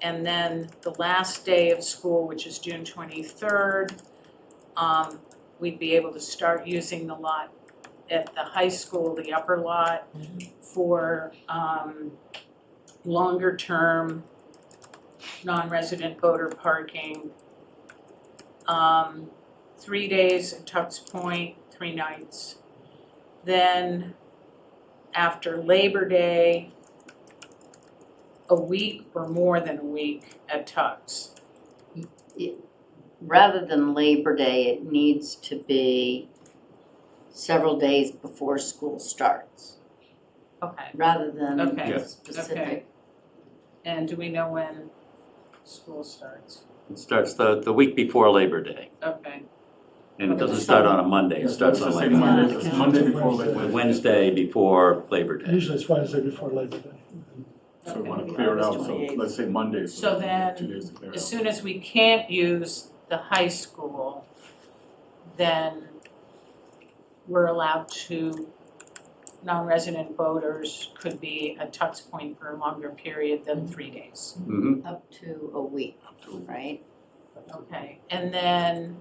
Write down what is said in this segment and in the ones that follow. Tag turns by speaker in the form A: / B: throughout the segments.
A: And then the last day of school, which is June twenty-third, um, we'd be able to start using the lot at the high school, the upper lot, for, um, longer-term, non-resident voter parking. Um, three days in Tux Point, three nights. Then, after Labor Day, a week or more than a week at Tux.
B: Rather than Labor Day, it needs to be several days before school starts,
A: Okay.
B: rather than
A: Okay.
B: a
C: Yes.
B: specific.
A: And do we know when school starts?
C: It starts the, the week before Labor Day,
A: Okay,
C: and it doesn't start on a Monday, it starts on like
B: Monday.
C: a
B: Monday.
D: before Labor Day.
C: Wednesday before Labor Day.
D: Usually it's Wednesday before Labor Day.
E: So we
A: okay.
E: wanna clear it out, so let's say Monday,
A: So
E: so we
A: then,
E: have two days to clear it
A: As
E: out.
A: soon as we can't use the high school, then we're allowed to, non-resident voters could be at Tux Point for a longer period than three days.
C: Mhm.
B: Up to a week, right?
A: Okay, and then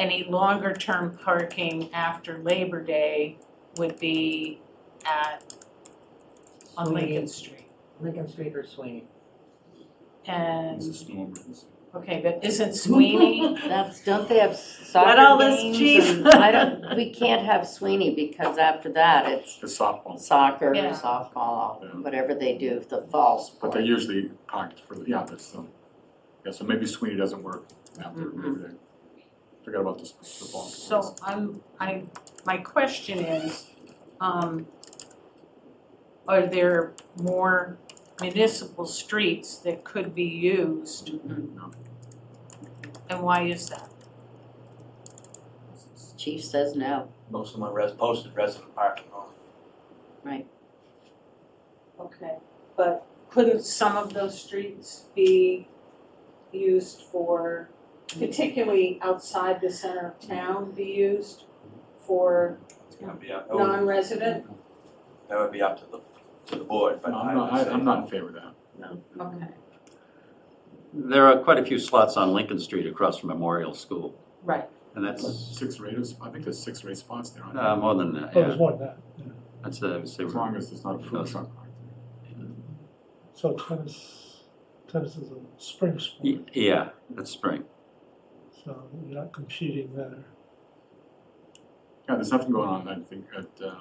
A: any longer term parking after Labor Day would be at, on Lincoln Street.
F: Lincoln Street or Sweeney?
E: It's a
A: And,
E: snow emergency.
A: okay, but isn't Sweeney,
B: That's, don't they have
A: Got all
B: soccer
A: this,
B: games
A: chief.
B: and I don't, we can't have Sweeney because after that it's
E: The softball,
B: soccer,
A: Yeah.
E: Yeah.
B: softball, whatever they do, the fall
E: but
B: sport.
E: they're usually packed for, the yeah, that's, um, yeah, so maybe Sweeney doesn't work after Labor Day. Forgot about this, the ball.
A: Mm-hmm. so I'm, I, my question is, um, are there more municipal streets that could be used
E: No.
A: and why is that?
B: Chief says no.
G: Most of my res, posted resident parking only.
A: Okay, but couldn't some of those streets be used for, particularly outside the center of town, be used for
G: It's gonna be up, that would,
A: non-resident?
G: that would be up to the, to the board, but
E: But
G: I
E: I'm
G: would
E: not,
G: say.
E: I, I'm not in favor of that.
A: Okay,
C: There are quite a few slots on Lincoln Street across from Memorial School,
A: right,
C: and that's,
E: Six rated, I think there's six rate spots there, aren't there?
C: uh, more than that,
D: Oh, there's
C: yeah.
D: one now. yeah.
C: That's, uh, I would say
E: As long as there's not a food
C: Does-
E: truck parked there.
D: So tennis, tennis is a spring
C: Y-
D: sport,
C: Yeah, that's spring.
D: so you're not competing there.
E: Yeah, there's nothing going on, I think, at, uh,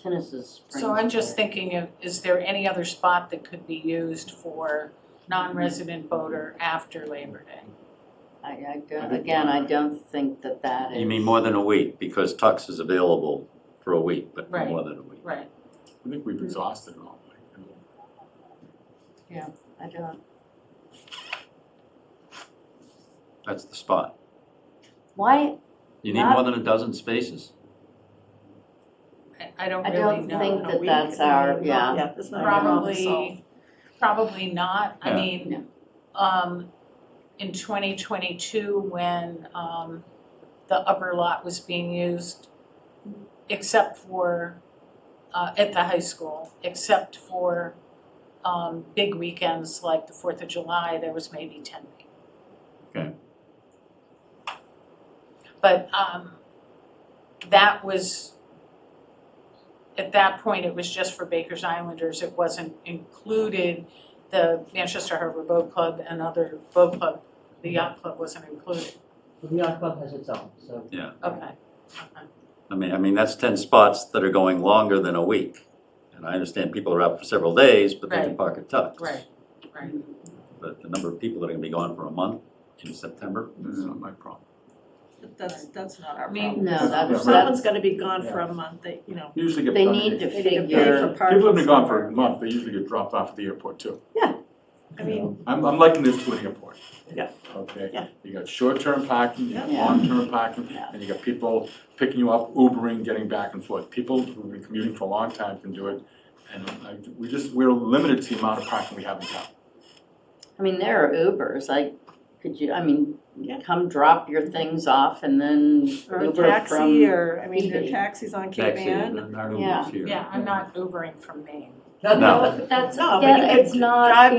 B: Tennis is spring.
A: so I'm just
B: sport.
A: thinking of, is there any other spot that could be used for non-resident voter after Labor Day?
B: I, I
E: I
B: don't,
E: think-
B: again, I don't think that that is.
C: You mean more than a week, because Tux is available for a week, but
A: Right.
C: more than a week.
A: Right,
E: I think we've exhausted it all, like, you know.
B: I don't,
C: That's the spot.
B: why,
C: You need
B: Not-
C: more than a dozen spaces.
A: I- I don't
B: I
A: really
B: don't
A: know.
B: think that that's our, yeah.
F: that's
A: Probably, probably not, I
C: Yeah.
A: mean, um, in twenty twenty-two, when, um, the upper lot was being used, except for, uh, at the high school, except for, um, big weekends like the Fourth of July, there was maybe ten people.
C: Okay.
A: But, um, that was, at that point, it was just for Baker's Islanders, it wasn't included, the Manchester Harbor Boat Club and other boat club, the yacht club wasn't included,
F: The yacht club has its own, so.
A: okay.
C: I mean, I mean, that's ten spots that are going longer than a week. And I understand people are out for several days, but they can
A: Right.
C: park at Tux.
A: Right, right.
C: But the number of people that are gonna be gone for a month in September,
E: That's not my problem.
H: That's, that's not
A: I
H: our
A: mean,
H: problem.
B: No, that's,
H: If
B: that's,
H: Someone's gonna be gone for a month, they, you know,
E: You Usually get.
B: they
E: done
B: need
E: in-
B: to
H: they need to pay for
B: figure,
E: People have
H: parking
E: been gone for a
H: somewhere.
E: month, they usually get dropped off at the airport too.
H: I mean,
E: I'm, I'm liking this to an airport.
H: Yeah.
E: Okay?
H: Yeah.
E: You got short-term parking, you got
B: Yeah.
E: long-term parking,
B: Yeah.
E: and you got people picking you up, Ubering, getting back and forth. People who've been commuting for a long time can do it. And I, we just, we're limited to the amount of parking we have in town.
B: I mean, there are Ubers, like, could you, I mean,
H: Yeah. Mm-hmm.
B: come drop your things off and then
H: or a
B: Uber
H: taxi,
B: from,
H: or, I mean, there are
B: eBay.
H: taxis on Cape
C: taxi,
H: Ann.
C: there are no
B: Yeah.
C: Ubers here.
A: Yeah, I'm not Ubering from Maine.
C: No.
B: that's,
H: No, Oh, but you
B: yeah,
H: could
B: it's not,
H: drive
B: you